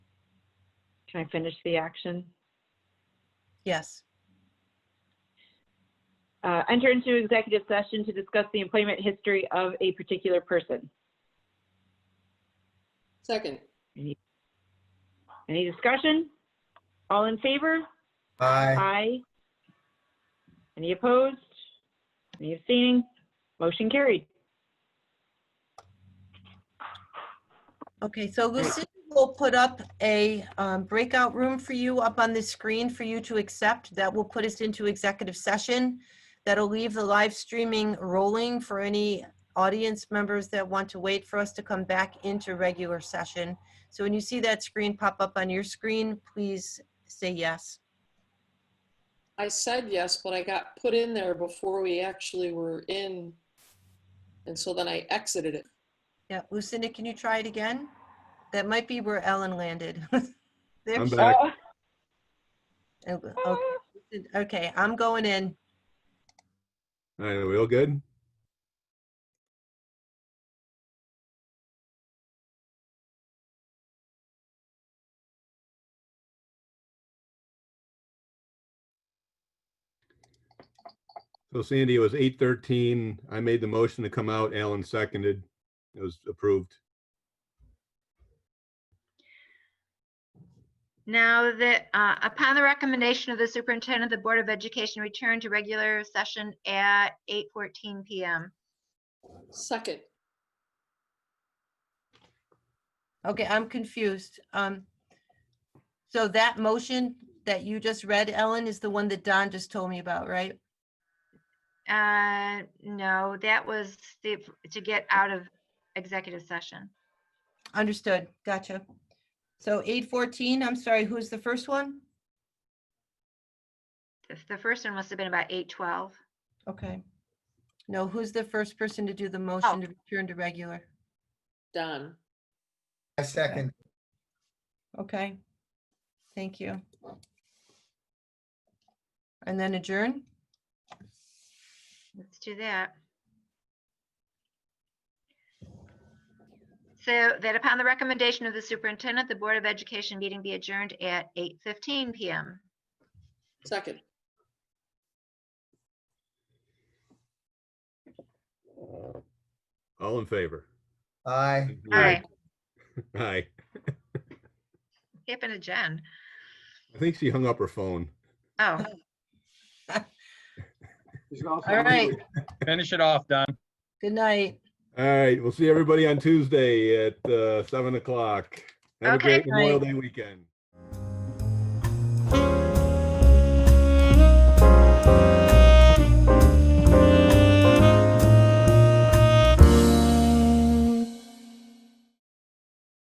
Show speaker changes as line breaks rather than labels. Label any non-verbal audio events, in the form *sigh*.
Can I finish the action?
Yes.
Uh, Enter into executive session to discuss the employment history of a particular person.
Second.
Any discussion? All in favor?
Aye.
Aye. Any opposed? Any abstaining? Motion carried.
Okay, so Lucinda will put up a um, breakout room for you up on the screen for you to accept. That will put us into executive session. That'll leave the live streaming rolling for any audience members that want to wait for us to come back into regular session. So when you see that screen pop up on your screen, please say yes.
I said yes, but I got put in there before we actually were in. And so then I exited it.
Yeah, Lucinda, can you try it again? That might be where Ellen landed. *laughs* There
I'm
she-
back.
oh, okay. Okay, I'm going in.
All right, are we all good? So Sandy, it was eight thirteen. I made the motion to come out. Alan seconded. It was approved.
Now that, uh, upon the recommendation of the superintendent, the Board of Education returned to regular session at 8:14 PM.
Second.
Okay, I'm confused. Um, so that motion that you just read, Ellen, is the one that Don just told me about, right?
Uh, No, that was the- to get out of executive session.
Understood. Gotcha. So eight fourteen, I'm sorry, who's the first one?
The the first one must have been about 8:12.
Okay. No, who's the first person to do the motion to return to regular?
Don.
I second.
Okay. Thank you. And then adjourn?
Let's do that. So that upon the recommendation of the superintendent, the Board of Education meeting be adjourned at 8:15 PM.
Second.
All in favor?
Aye.
Aye.
Aye.
Happened to Jen.
I think she hung up her phone.
Oh.
All right,
Finish it off, Don.
good night.
All right, we'll see everybody on Tuesday at uh, seven o'clock. Have a
Okay.
great Memorial Day weekend.